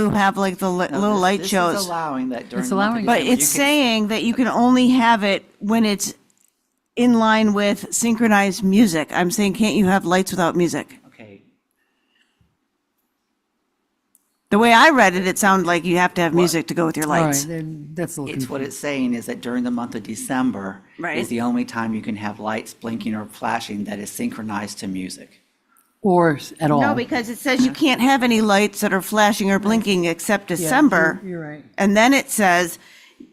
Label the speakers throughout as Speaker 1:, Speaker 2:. Speaker 1: who have like the li- little
Speaker 2: This-
Speaker 1: light
Speaker 2: this is
Speaker 1: shows.
Speaker 2: allowing that during.
Speaker 3: It's
Speaker 2: the month of December.
Speaker 3: allowing
Speaker 1: But
Speaker 2: You
Speaker 1: it's
Speaker 2: can-
Speaker 1: saying that you can only have it when it's in line with synchronized music. I'm saying, can't you have lights without music?
Speaker 2: Okay,
Speaker 1: The way I read it, it sounded like you have to have music to go with your
Speaker 3: All right,
Speaker 1: lights.
Speaker 3: then that's a little
Speaker 2: it's what
Speaker 3: confusing.
Speaker 2: it's saying is that during the month of December
Speaker 1: Right.
Speaker 2: is the only time you can have lights blinking or flashing that is synchronized to music.
Speaker 3: Or s- at all.
Speaker 1: No, because it says you can't have any lights that are flashing or blinking except
Speaker 3: Yeah,
Speaker 1: December.
Speaker 3: you're- You're right.
Speaker 1: And then it says,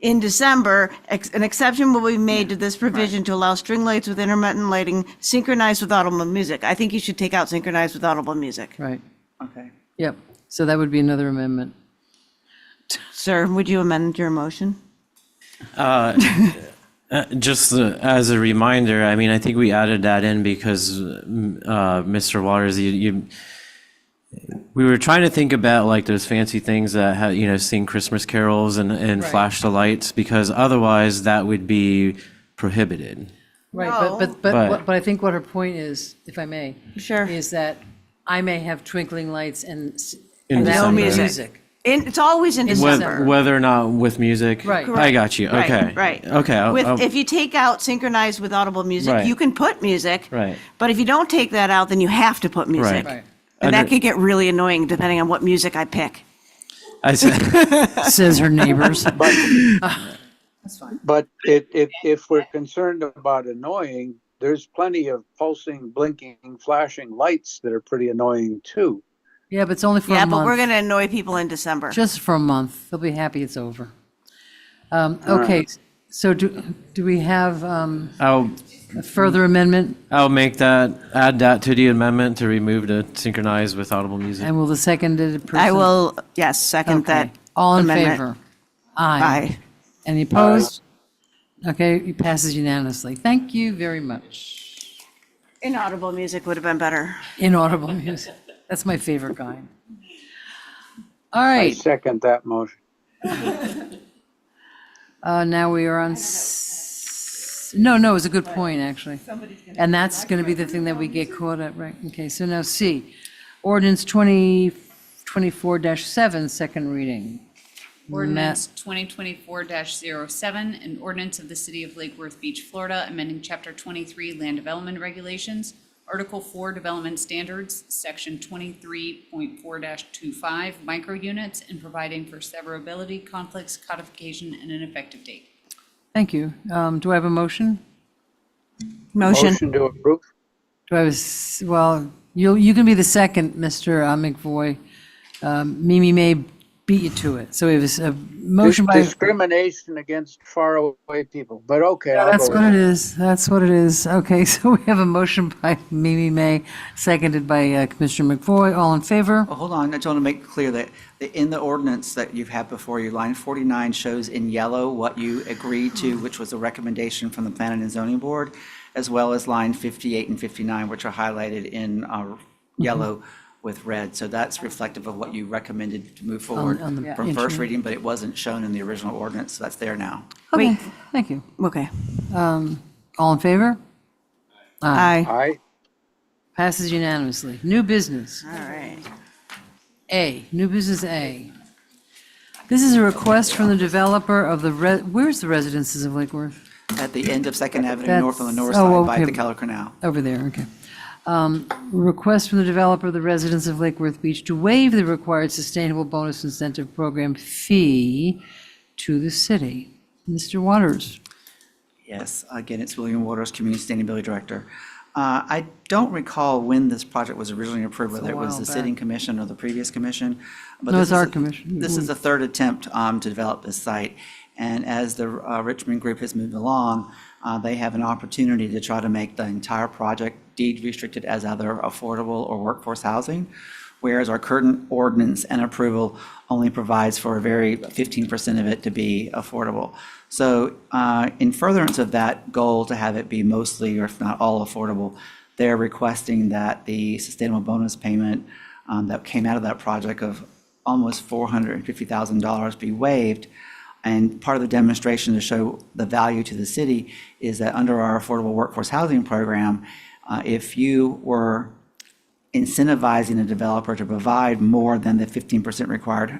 Speaker 1: in December, ex- an exception will be made to this provision to allow string lights with intermittent lighting synchronized with audible music. I think you should take out synchronized with audible music.
Speaker 3: Right.
Speaker 2: Okay.
Speaker 3: Yep. So that would be another amendment.
Speaker 1: Sir, would you amend your motion?
Speaker 4: Just uh, as a reminder, I mean, I think we added that in because mm, uh, Mr. Waters, you, you, we were trying to think about like those fancy things that had, you know, sing Christmas carols and, and flash the lights because otherwise that would be prohibited.
Speaker 3: Right, but,
Speaker 1: No.
Speaker 3: but, but,
Speaker 4: But-
Speaker 3: what- but I think what her point is, if I may.
Speaker 1: Sure.
Speaker 3: Is that I may have twinkling lights and. s-
Speaker 4: In
Speaker 3: and that
Speaker 4: No
Speaker 3: would be
Speaker 4: music.
Speaker 1: In- It's always in
Speaker 3: Whether-
Speaker 4: Whether,
Speaker 1: December.
Speaker 4: whether or not with music.
Speaker 3: Right.
Speaker 4: I got you.
Speaker 1: Right,
Speaker 4: Okay.
Speaker 1: Right.
Speaker 4: Okay. I'll- I'll-
Speaker 1: With, if you take out synchronized with audible music,
Speaker 4: Right.
Speaker 1: you can put music.
Speaker 4: Right.
Speaker 1: But if you don't take that out, then you have to put music.
Speaker 4: Right.
Speaker 1: And that
Speaker 4: Under-
Speaker 1: could get really annoying depending on what music I pick.
Speaker 4: I said,
Speaker 3: Says her neighbors.
Speaker 5: But it, if, if we're concerned about annoying, there's plenty of pulsing, blinking, flashing lights that are pretty annoying too.
Speaker 3: Yeah, but it's only for
Speaker 1: Yeah,
Speaker 3: a
Speaker 1: but we're going
Speaker 3: month.
Speaker 1: to annoy people in December.
Speaker 3: Just for a month. They'll be happy it's over. Um, okay, so do, do we have, um,
Speaker 4: I'll,
Speaker 3: a further amendment?
Speaker 4: I'll make that, add that to the amendment to remove the synchronize with audible music.
Speaker 3: And will the seconded person?
Speaker 1: I will, yes, second
Speaker 3: Okay.
Speaker 1: that.
Speaker 3: All in
Speaker 1: amendment.
Speaker 3: favor? Aye.
Speaker 1: Aye.
Speaker 3: Any opposed? Okay, it passes unanimously. Thank you very much.
Speaker 1: Inaudible music would have been better.
Speaker 3: Inaudible music. That's my favorite kind. All
Speaker 5: I
Speaker 3: right,
Speaker 5: second that motion.
Speaker 3: uh, now we are on, s- no, no, it's a good point, actually. And that's going to be the thing that we get caught at, right? Okay, so now C, ordinance 20, 24-7, second reading.
Speaker 6: Ordinance 2024-07, an ordinance of the City of Lake Worth Beach, Florida, amending Chapter 23 Land Development Regulations, Article 4 Development Standards, Section 23.4-25 Micro Units, and providing for severability, conflicts, codification, and an effective date.
Speaker 3: Thank you. Um, Do I have a motion?
Speaker 1: Motion.
Speaker 5: Motion to approve?
Speaker 3: Do I was, well, you, you can be the second, Mr. McVoy. Um, Mimi May beat you to it. So it was a motion by,
Speaker 5: Discrimination against faraway people, but okay, I'll
Speaker 3: that's
Speaker 5: go
Speaker 3: what
Speaker 5: with
Speaker 3: it
Speaker 5: it.
Speaker 3: is. That's what it is. Okay, so we have a motion by Mimi May, seconded by uh, Commissioner McVoy. All in favor?
Speaker 2: Well, hold on, I just want to make clear that the- in the ordinance that you've had before you, line 49 shows in yellow what you agreed to, which was a recommendation from the Planning and Zoning Board, as well as line 58 and 59, which are highlighted in uh,
Speaker 3: Mm-hmm.
Speaker 2: yellow with red. So that's reflective of what you recommended to move forward
Speaker 3: on the
Speaker 2: from
Speaker 3: internet.
Speaker 2: first reading, but it wasn't shown in the original ordinance, so that's there now.
Speaker 3: Okay, thank you.
Speaker 1: Okay.
Speaker 3: All in favor?
Speaker 1: Aye.
Speaker 5: Aye,
Speaker 3: Passes unanimously. New business.
Speaker 1: All right.
Speaker 3: A, new business A. This is a request from the developer of the, re- where's the residences of Lake Worth?
Speaker 2: At the end of Second Avenue North on the north
Speaker 3: That's- oh,
Speaker 2: side by
Speaker 3: okay.
Speaker 2: the Keller Canal.
Speaker 3: Over there, okay. Um, Request from the developer, of the residents of Lake Worth Beach, to waive the required sustainable bonus incentive program fee to the city. Mr. Waters,
Speaker 2: Yes, again, it's William Waters, Community Sustainability Director. Uh, I don't recall when this project was originally approved, whether it was
Speaker 3: while
Speaker 2: the
Speaker 3: back.
Speaker 2: sitting commission or the previous commission. but
Speaker 3: No,
Speaker 2: this
Speaker 3: it's
Speaker 2: is
Speaker 3: our
Speaker 2: the-
Speaker 3: commission.
Speaker 2: This is the third attempt um, to develop this site. And as the uh, Richmond Group has moved along, uh, they have an opportunity to try to make the entire project deed restricted as either affordable or workforce housing, whereas our current ordinance and approval only provides for a very 15% of it to be affordable. So uh, in furtherance of that goal to have it be mostly, or if not all, affordable, they're requesting that the sustainable bonus payment um, that came out of that project of almost $450,000 be waived. And part of the demonstration to show the value to the city is that under our affordable workforce housing program, uh, if you were incentivizing a developer to provide more than the 15% required